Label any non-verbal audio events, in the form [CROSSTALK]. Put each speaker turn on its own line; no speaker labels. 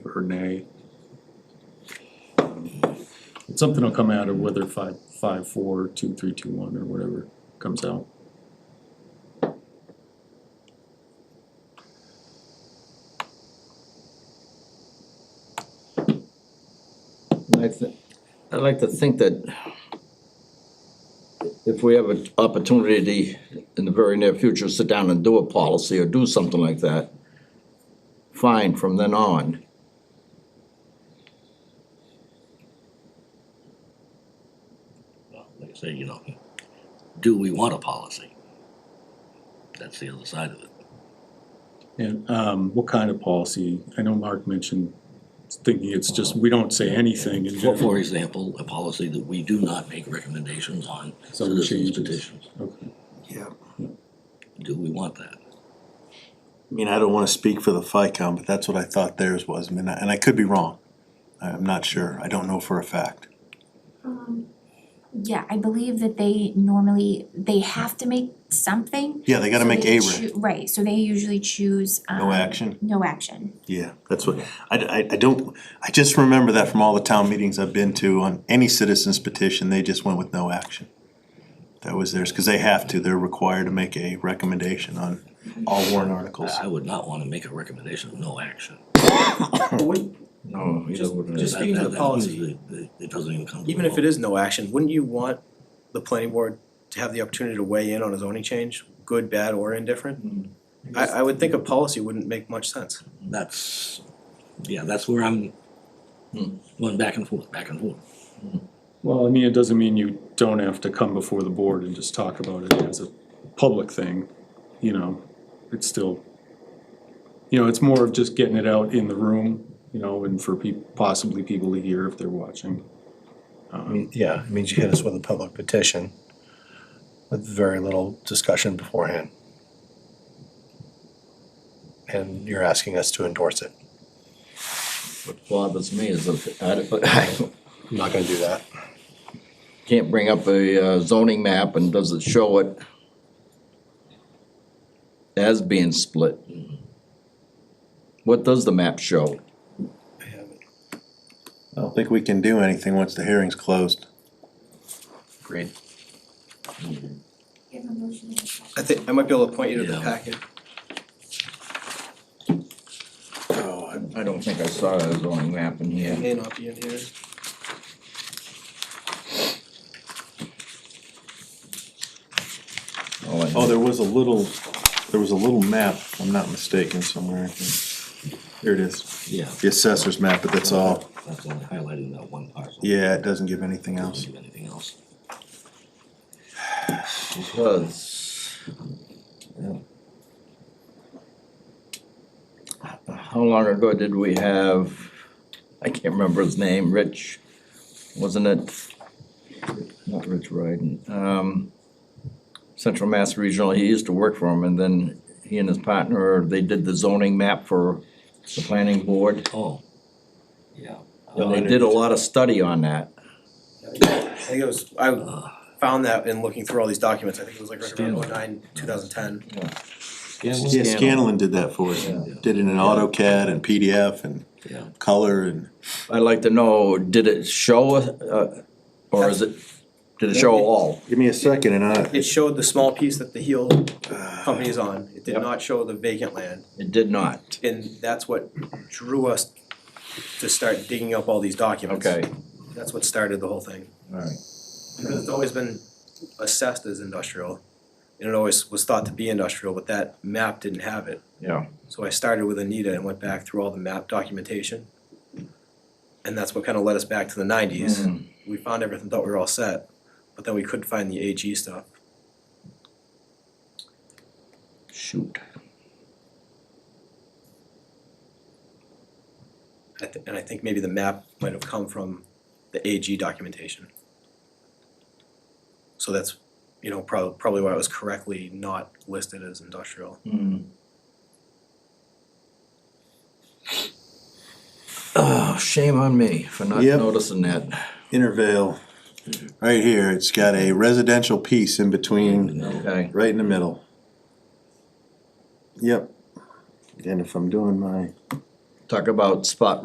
or nay. Something will come out of whether five, five, four, two, three, two, one, or whatever comes out.
I thi- I'd like to think that if we have an opportunity in the very near future, sit down and do a policy or do something like that, fine from then on.
Well, Like I say, you know, do we want a policy? That's the other side of it.
And, um, what kind of policy? I know Mark mentioned thinking it's just, we don't say anything in
For, for
general.
example, a policy that we do not make recommendations on
Some
citizens
changes.
petitions.
Okay.
Yeah,
Do we want that?
I mean, I don't wanna speak for the FICOM, but that's what I thought theirs was, I mean, and I could be wrong. I'm not sure, I don't know for a fact.
Um, yeah, I believe that they normally, they have to make something.
Yeah, they gotta
so
make
they
a
choo- Right, so they usually choose, um.
No action?
No action.
Yeah, that's what, I, I, I don't, I just remember that from all the town meetings I've been to, on any citizen's petition, they just went with no action. That was theirs, cause they have to, they're required to make a recommendation on all warrant articles.
I, I would not wanna make a recommendation of no action.
But wouldn't-
No, either
Just-
would I.
just-
That-
speaking to
that- that means
the policy.
that- that It doesn't even come to
even if
vote.
it is no action, wouldn't you want the planning board to have the opportunity to weigh in on a zoning change, good, bad, or indifferent?
Mm-hmm.
I, I would think a policy wouldn't make much sense.
That's, yeah, that's where I'm going back and forth, back and forth.
Well, I mean, it doesn't mean you don't have to come before the board and just talk about it as a public thing, you know, it's still. You know, it's more of just getting it out in the room, you know, and for peop- possibly people to hear if they're watching.
I mean, yeah, it means you hit us with a public petition with very little discussion beforehand. And you're asking us to endorse it.
What bothers me is if, I, [LAUGHS] I
I'm not gonna do that.
can't bring up a uh, zoning map and does it show it as being split? What does the map show?
I don't think we can do anything once the hearing's closed.
Agreed.
Give a motion.
I think, I might be able to point you to the
Yeah.
packet.
Oh, I- I don't think I saw a zoning map in
It
here.
may not be in here.
All I-
Oh, there was a little, there was a little map, if I'm not mistaken, somewhere. I can- Here it is,
Yeah.
the assessor's map, but that's all.
That's only highlighting that one parcel.
Yeah, it doesn't give anything else.
Doesn't do anything else.
Because. yeah. How long ago did we have, I can't remember his name, Rich, wasn't it? Not Rich Ryden, um, Central Mass Regional, he used to work for him and then he and his partner, they did the zoning map for the planning board.
Oh, yeah.
And they did a lot of study on that.
I think it was,
uh,
I found that in looking through all these documents, I think it was like right around oh nine, two thousand ten.
Yeah,
Scanlon.
Scanlon did that for us, did it in AutoCAD and PDF and
Yeah.
color and,
I'd like to know, did it show, uh, or is it, did it show all?
give me a second and I,
It showed the small piece that the heel company is on. It did not show the vacant land.
It did not.
And that's what drew us to start digging up all these documents. That's what started the whole thing.
alright.
Because it's always been assessed as industrial, and it always was thought to be industrial, but that map didn't have it.
Yeah.
So I started with Anita and went back through all the map documentation. And that's what kind of led us back to the
Mm-hmm.
nineties. We found everything, thought we were all set, but then we couldn't find the AG stuff.
Shoot.
I thi- And I think maybe the map might have come from the AG documentation. So that's, you know, prob- probably why it was correctly not listed as industrial.
Oh, shame on me for not
Yep.
noticing that.
Intervale, right here, it's got a residential piece in between,
Okay.
right in the middle. Yep, and if I'm doing my
Talk about spot